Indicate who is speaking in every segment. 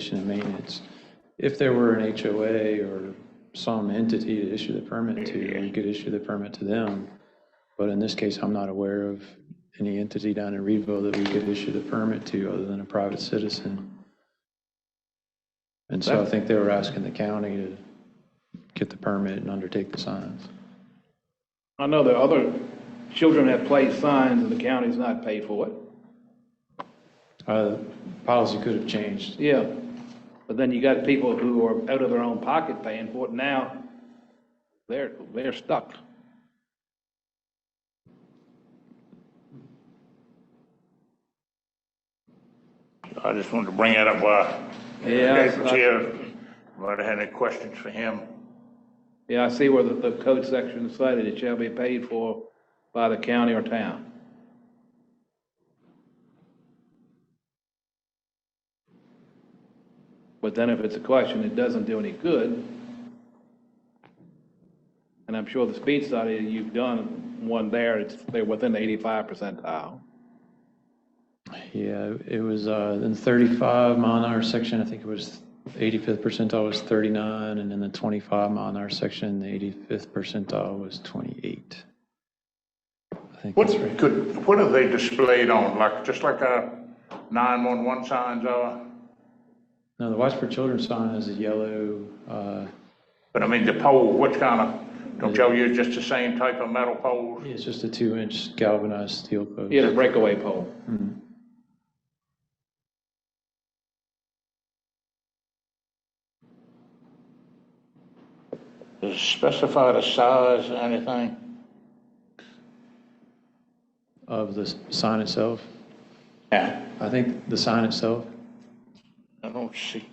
Speaker 1: operation and maintenance. If there were an HOA or some entity to issue the permit to, we could issue the permit to them. But in this case, I'm not aware of any entity down in Reedville that we could issue the permit to other than a private citizen. And so I think they were asking the county to get the permit and undertake the signs.
Speaker 2: I know that other children have placed signs and the county's not paid for it.
Speaker 1: Uh, Policy could have changed.
Speaker 2: Yeah, but then you got people who are out of their own pocket paying for it now. They're, they're stuck.
Speaker 3: I just wanted to bring that up while.
Speaker 2: Yeah,
Speaker 3: Okay,
Speaker 2: it's not-
Speaker 3: Chair, might have had any questions for him.
Speaker 2: Yeah, I see where the, the code section is cited, it shall be paid for by the county or town. But then if it's a question, it doesn't do any good. And I'm sure the speed study, you've done one there, it's, they're within the eighty-five percentile.
Speaker 1: Yeah, it was uh, in 35 mile an hour section, I think it was 85th percentile was 39, and in the 25 mile an hour section, the 85th percentile was 28. I think
Speaker 3: What
Speaker 1: that's right.
Speaker 3: could, what are they displayed on, like, just like our 911 signs are?
Speaker 1: No, the Watch for Children sign is a yellow, uh,
Speaker 3: But I mean, the pole, what kind of, don't y'all use just the same type of metal poles?
Speaker 1: it's just a two-inch galvanized steel post.
Speaker 2: You had a breakaway pole.
Speaker 3: Does it specify the size or anything?
Speaker 1: Of the s- sign itself.
Speaker 3: Yeah,
Speaker 1: I think the sign itself,
Speaker 3: I don't see.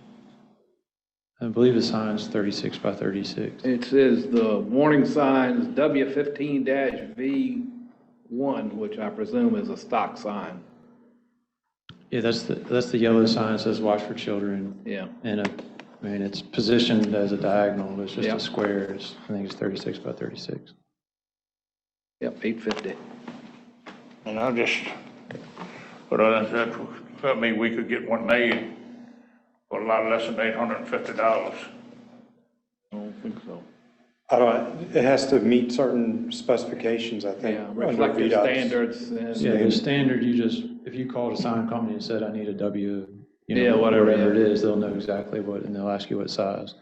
Speaker 1: I believe the sign's 36 by 36.
Speaker 2: It says the warning signs W fifteen V one, which I presume is a stock sign,
Speaker 1: Yeah, that's the, that's the yellow sign that says Watch for Children.
Speaker 2: yeah.
Speaker 1: And, a- I mean, it's positioned as a diagonal, but it's just
Speaker 2: Yeah.
Speaker 1: a square, it's, I think it's 36 by 36.
Speaker 2: Yep, eight fifty.
Speaker 3: And I just, but I, that, I mean, we could get one made for a lot less than $850.
Speaker 2: I don't think so.
Speaker 4: I don't, it has to meet certain specifications, I think.
Speaker 2: Yeah,
Speaker 4: under
Speaker 2: reflective
Speaker 4: VDOT's.
Speaker 2: standards
Speaker 1: Yeah,
Speaker 2: and,
Speaker 1: the standard, you just, if you called a sign company and said, I need a W, you
Speaker 2: Yeah,
Speaker 1: know,
Speaker 2: whatever,
Speaker 1: whatever it
Speaker 2: yeah.
Speaker 1: is, they'll know exactly what, and they'll ask you what size.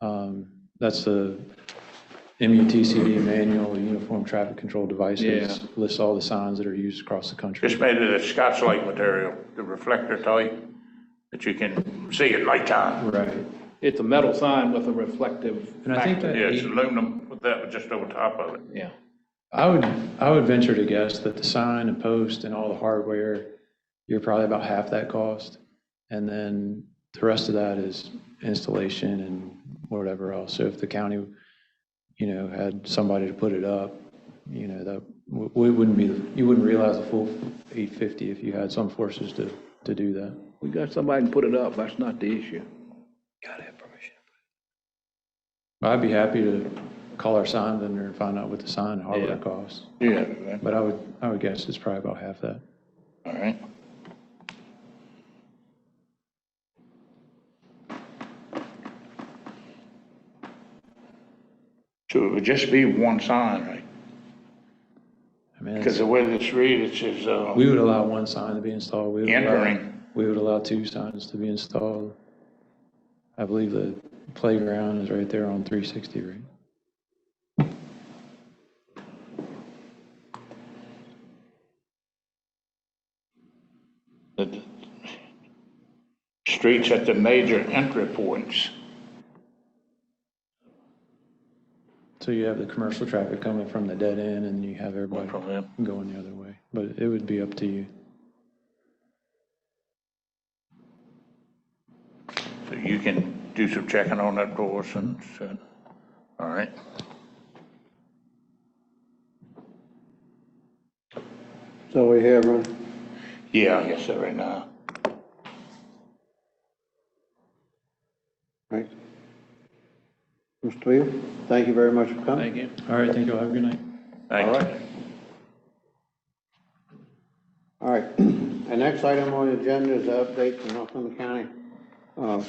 Speaker 1: Um, That's the MUTCD manual, the Uniform Traffic Control Devices,
Speaker 2: Yeah.
Speaker 1: lists all the signs that are used across the country.
Speaker 3: It's made of the Scotch Light material, the reflector type, that you can see at nighttime.
Speaker 1: Right.
Speaker 2: it's a metal sign with a reflective
Speaker 1: And I think
Speaker 2: factor,
Speaker 1: that.
Speaker 3: Yeah, it's
Speaker 1: eight-
Speaker 3: aluminum with that just over top of it.
Speaker 2: yeah.
Speaker 1: I would, I would venture to guess that the sign and post and all the hardware, you're probably about half that cost. And then the rest of that is installation and whatever else. So if the county, you know, had somebody to put it up, you know, that, w- we wouldn't be, you wouldn't realize the full 850 if you had some forces to, to do that.
Speaker 2: We got somebody can put it up, that's not the issue.
Speaker 1: But I'd be happy to call our sign vendor and find out what the sign and hardware
Speaker 2: Yeah.
Speaker 1: costs.
Speaker 3: Yeah.
Speaker 1: But I would, I would guess it's probably about half that.
Speaker 3: All right. So it would just be one sign, right?
Speaker 1: I mean, it's-
Speaker 3: Because the way this reads, it says, uh,
Speaker 1: We would allow one sign to be installed. We would allow-
Speaker 3: Entering.
Speaker 1: We would allow two signs to be installed. I believe the playground is right there on 360, right?
Speaker 3: the streets at the major entry points.
Speaker 1: So you have the commercial traffic coming from the dead end and you have everybody
Speaker 3: From them.
Speaker 1: going the other way. But it would be up to you.
Speaker 3: So you can do some checking on that for us and, and- all right.
Speaker 5: So we have uh, one.
Speaker 3: Yeah, I guess so right now.
Speaker 5: Right. Mr. Twill, thank you very much for coming.
Speaker 2: Thank you.
Speaker 1: All right, thank you all. Have a good night.
Speaker 3: Thank
Speaker 5: All right.
Speaker 3: you.
Speaker 5: All right. The next item on the agenda is the update from Northumberland County uh,